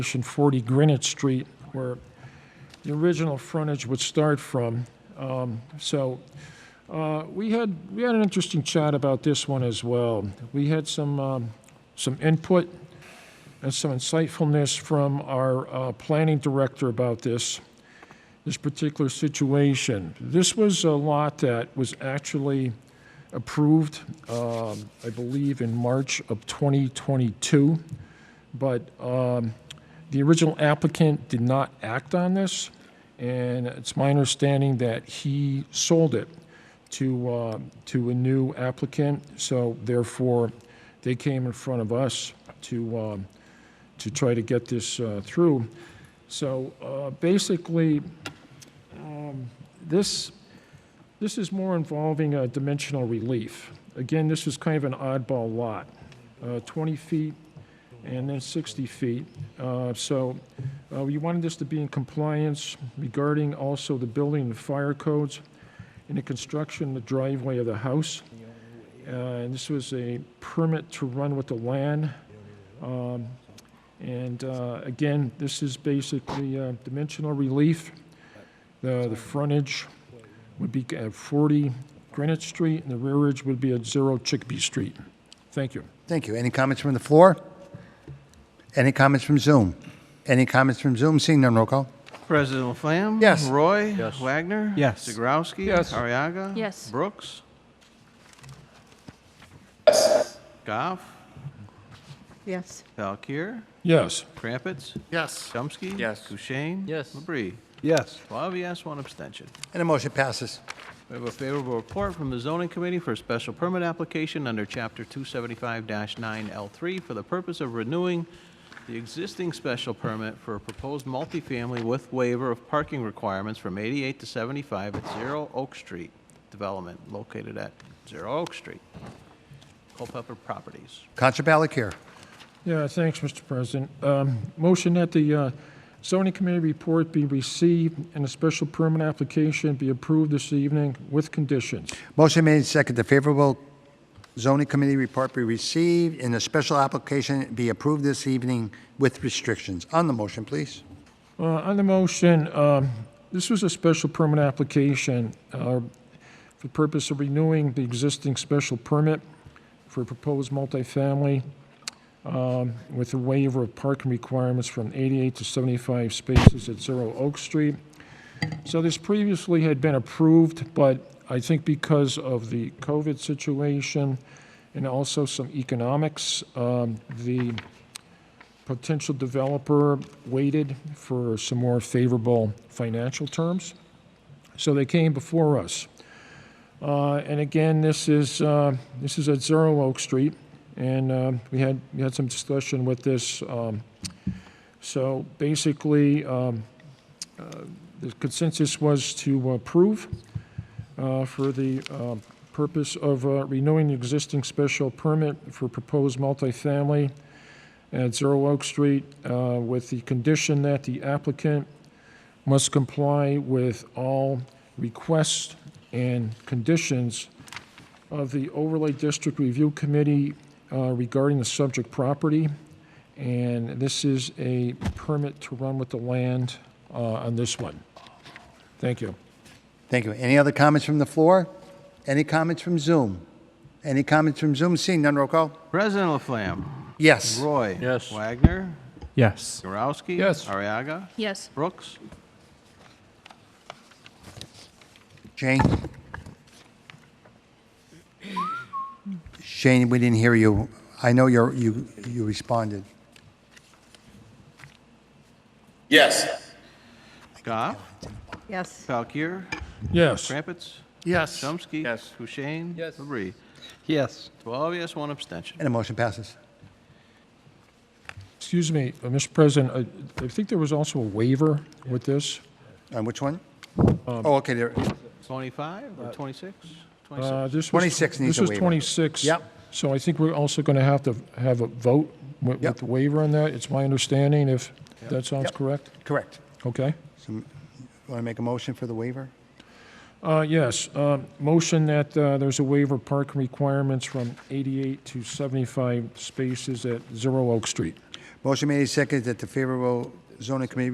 Station 40 Greenwich Street, where the original frontage would start from. Um, So uh, we had, we had an interesting chat about this one as well. We had some, um, some input and some insightfulness from our uh, planning director about this, this particular situation. This was a lot that was actually approved, um, I believe, in March of 2022, but um, the original applicant did not act on this, and it's my understanding that he sold it to, uh, to a new applicant, so therefore, they came in front of us to, um, to try to get this uh, through. So uh, basically, um, this, this is more involving a dimensional relief. Again, this is kind of an oddball lot, uh, 20 feet and then 60 feet. Uh, So uh, we wanted this to be in compliance regarding also the building and fire codes and the construction of the driveway of the house. Uh, And this was a permit to run with the land. Um, And uh, again, this is basically uh, dimensional relief. The the frontage would be at 40 Greenwich Street, and the rearage would be at 0 Chickpea Street. Thank you. Thank you. Any comments from the floor? Any comments from Zoom? Any comments from Zoom? Seeing none, roll call. President Laflamme? Yes. Roy? Yes. Wagner? Yes. Zegrowski? Yes. Ariaga? Yes. Brooks? Yes. Goff? Yes. Valkir? Yes. Crumpets? Yes. Chomsky? Yes. Kushein? Yes. Labrie? Yes. Twelve yes, one abstention. And the motion passes. We have a favorable report from the zoning committee for a special permit application under Chapter 275-9L3 for the purpose of renewing the existing special permit for a proposed multifamily with waiver of parking requirements from 88 to 75 at Zero Oak Street Development located at Zero Oak Street, Culpepper Properties. Counselor Balakir. Yeah, thanks, Mr. President. Um, Motion that the uh, zoning committee report be received and a special permit application be approved this evening with conditions. Motion made second. The favorable zoning committee report be received and a special application be approved this evening with restrictions. On the motion, please. Uh, On the motion, um, this was a special permit application uh, for the purpose of renewing the existing special permit for a proposed multifamily um, with a waiver of parking requirements from 88 to 75 spaces at Zero Oak Street. So this previously had been approved, but I think because of the COVID situation and also some economics, um, the potential developer waited for some more favorable financial terms. So they came before us. Uh, And again, this is, uh, this is at Zero Oak Street, and uh, we had, we had some discussion with this. um, So basically, um, uh, the consensus was to approve uh, for the uh, purpose of uh, renewing the existing special permit for proposed multifamily at Zero Oak Street uh, with the condition that the applicant must comply with all requests and conditions of the Overlay District Review Committee uh, regarding the subject property. And this is a permit to run with the land uh, on this one. Thank you. Thank you. Any other comments from the floor? Any comments from Zoom? Any comments from Zoom? Seeing none, roll call. President Laflamme? Yes. Roy? Yes. Wagner? Yes. Zarowski? Yes. Ariaga? Yes. Brooks? Shane? Shane, we didn't hear you. I know you're, you, you responded. Yes. Goff? Yes. Valkir? Yes. Crumpets? Yes. Chomsky? Yes. Kushein? Yes. Labrie? Yes. 12 yes, one abstention. And the motion passes. Excuse me, uh, Mr. President, I- I think there was also a waiver with this. On which one? Oh, okay, there, 25 or 26? 26. Uh, this was- 26 needs This a was waiver. 26. Yep. So I think we're also going to have to have a vote wi- with Yep. the waiver on that. It's my understanding, if that sounds Yep. correct. correct. Okay. Want to make a motion for the waiver? Uh, Yes, uh, motion that uh, there's a waiver of parking requirements from 88 to 75 spaces at Zero Oak Street. Motion made and seconded that the favorable zoning committee